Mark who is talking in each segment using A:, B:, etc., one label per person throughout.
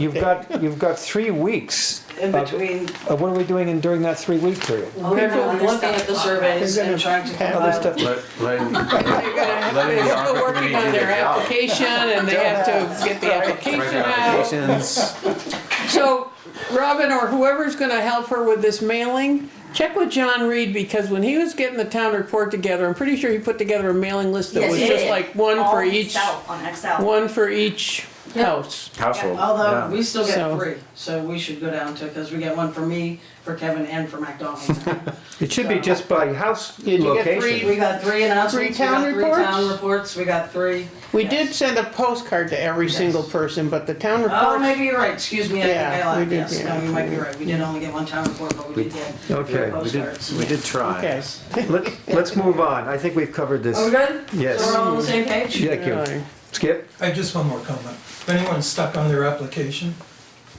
A: You've got, you've got three weeks.
B: in
A: of-
B: between.
A: of What are we doing in, during that three-week period?
B: We're
C: Whatever, looking at the surveys and trying to
A: Other
D: Um,
C: compile.
A: stuff,
E: Let, let,
C: They're
E: letting the
C: still working on
E: opportunity
C: their
E: to out.
C: application and they have to get the application
E: Make
C: out.
E: applications.
C: So Robin or whoever's gonna help her with this mailing, check with John Reed because when he was getting the town report together, I'm pretty sure he put together a mailing list that
F: Yes,
C: was
F: he
C: just
F: did.
C: like one
F: All
C: for each,
F: Excel, on Excel.
C: one for each house.
E: Household.
B: Although,
E: yeah.
B: we still
C: So-
B: get three, so we should go down to, because we get one for me, for Kevin, and for McDonald's.
A: it should be just by house
C: Did you get three?
A: location.
B: We got three announcements, we
C: town
B: got three town reports, we got three.
D: We did send a postcard to every single person, but the town
B: Oh,
D: reports,
B: maybe you're right, excuse me, I think I
D: Yeah, we
B: lied,
D: did,
B: yes, no,
D: yeah.
B: you might be right, we did only get one town report, but we did get
A: Okay,
B: three
E: We
B: postcards.
E: did, we did try.
D: okay.
A: Let, let's move on. I think we've covered
B: Are
A: this.
B: we good?
A: Yes.
B: So we're all on the same page?
A: Thank you.
D: Alright.
A: Skip?
G: I have just one more comment. If anyone's stuck on their application,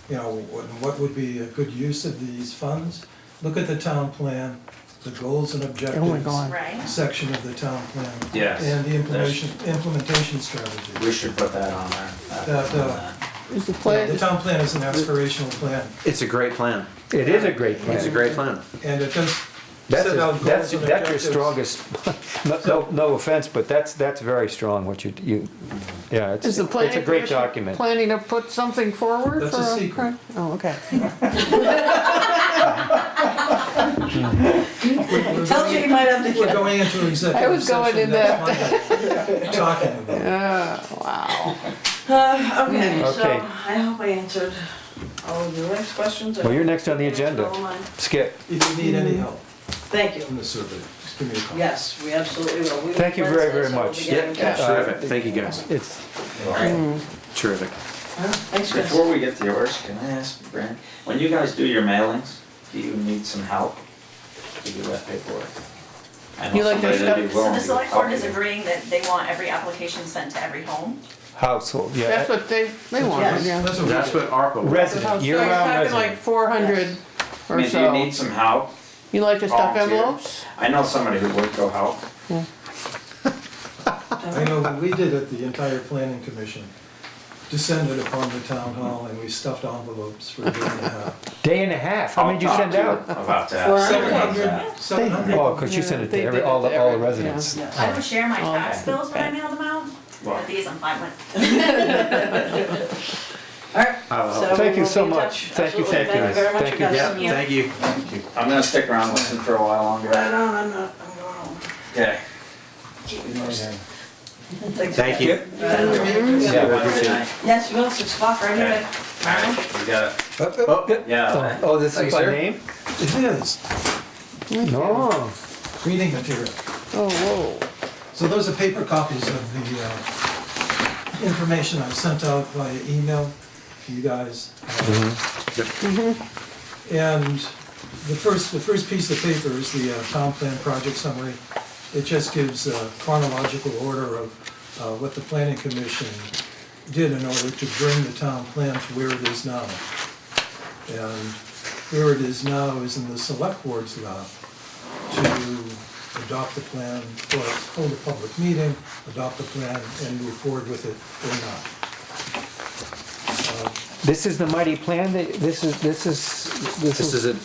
G: you know, what what would be a good use of these funds? Look at the town plan, the goals and objectives
D: God.
F: Right.
G: section of the town plan.
E: Yes.
G: And the implementation, implementation strategy.
E: We should put that on there.
G: That, uh,
D: Is the
G: The
D: plan,
G: town plan is an aspirational plan,
E: It's a great plan.
A: It is a great
E: It's a
A: plan.
E: great plan.
G: and it does
A: That's,
G: set out
A: a- that's,
G: goals and
A: that's your
G: objectives.
A: strongest, no, no, no offense, but that's, that's very strong, what you, you, yeah, it's,
D: is
A: it's
D: the planning
A: a great
D: commission
A: document.
D: planning to put something forward for?
G: That's a secret.
D: Oh, okay.
B: Tells you you might have to
G: We're
B: get
G: going into executive
D: was going
G: session
D: in
G: next Monday, talking about it.
B: Uh, okay, so
A: Okay.
B: I hope I answered all of your next questions. I
A: Well, you're
B: hope
A: next on the
B: I answered
A: agenda.
B: all mine.
A: Skip,
G: If you need any help
B: Thank
G: from
B: you.
G: the survey, just give me a call.
B: Yes, we absolutely will. We will
A: Thank you very, very
B: Wednesday, so we'll
A: much.
B: be
E: Yeah,
B: getting cash.
E: terrific. Thank you guys.
A: it's,
E: Terrific.
B: Huh? Thanks, Chris.
H: Before we get to yours, can I ask Brent, when you guys do your mailings, do you need some help to do that paperwork? I
D: You
H: know
D: like their
H: somebody that'd be
D: stuff?
F: So
H: willing
F: the
H: to
F: select
H: help
F: board is
H: you.
F: agreeing that they want every application sent to every home.
A: household, yeah.
D: That's what they, they wanted, yeah.
G: That's what we
E: That's
G: do.
E: what ARPA was.
A: Resident,
D: So
A: year
D: you're
A: round
D: talking like
A: resident.
D: four hundred
H: I
D: or
H: mean, do you
D: so.
H: need some help?
D: You like to stuff
H: volunteer?
D: envelopes?
H: I know somebody who would go help.
G: I know when we did it, the entire planning commission descended upon the town hall and we stuffed envelopes for a day and a half.
A: Day and a half, how many did you
H: I'll
A: send
H: talk
A: out?
H: to you About that.
B: Four
H: See what comes
G: hundred.
H: out.
G: Seven hundred.
A: Oh, because you
D: Yeah,
A: sent it
D: they
A: to every,
D: did it
A: all,
D: to
A: the- all the
D: every-
A: residents.
B: Yes.
C: Oh,
F: I would share my tax
D: Okay.
F: bills when I mail them out,
H: Well,
F: but these I'm fine with.
B: All right.
E: I'll
B: so
E: help.
A: Thank
B: we
A: you
B: will
A: so
B: be in
A: much.
B: touch.
A: Thank you, thank
B: Absolutely.
A: you.
B: very much,
A: Thank you.
B: guys.
E: Yeah, thank you.
H: I'm gonna stick around listening for a while longer.
B: Right on, I'm not, I'm going home.
H: Okay.
E: Thank you.
H: Yeah,
A: Yeah,
H: Wednesday night.
B: Yes, well, six o'clock, right here.
H: Okay. Alright, we got it.
A: Oh,
H: Yeah.
A: oh, this
E: Thank
A: is
E: you,
A: by
E: sir.
A: name?
G: It is
A: No.
G: reading material.
D: Oh, whoa.
G: So those are paper copies of the uh, information I sent out via email to you guys. Mm-hmm. And the first, the first piece of paper is the uh, town plan project summary. It just gives a chronological order of uh, what the planning commission did in order to bring the town plan to where it is now. And where it is now is in the select board's lap to adopt the plan, or hold a public meeting, adopt the plan, and move forward with it or not.
A: This is the mighty plan that, this is, this is, this
E: This
A: is.
E: is a,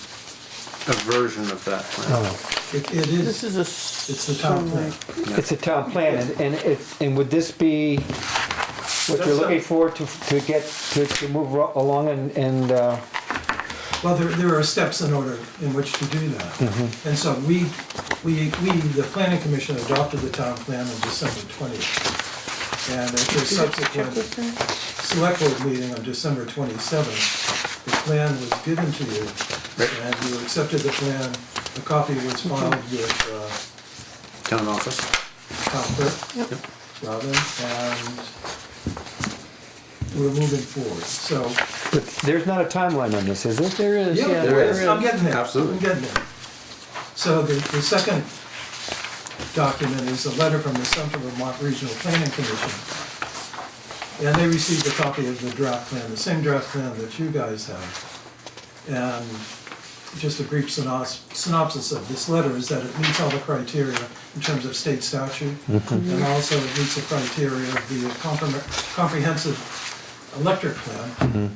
E: a version of that plan.
A: Oh.
G: It, it
D: This
G: is,
D: is a.
G: it's the town plan.
A: It's a town plan, and, and it, and would this be what you're
G: That's
A: looking
G: a-
A: for to, to get, to, to move ro- along and, and, uh,
G: Well, there, there are steps in order in which to do that. And so we, we, we, the planning commission adopted the town plan on December twentieth. And at the subsequent select board meeting on December twenty-seventh, the plan was given to you. And you accepted the plan, a copy was filed with, uh,
E: Town office.
G: Tom Burke, Robin, and we're moving forward, so.
A: but there's not a timeline on this, is there? There is,
G: Yeah,
E: there is.
G: I'm getting there.
E: Absolutely.
G: I'm getting there. So the, the second document is a letter from the Central Vermont Regional Planning Commission. And they received a copy of the draft plan, the same draft plan that you guys have. And just a brief synops- synopsis of this letter is that it meets all the criteria in terms of state statute. And also it meets the criteria of the compre- comprehensive electric plan,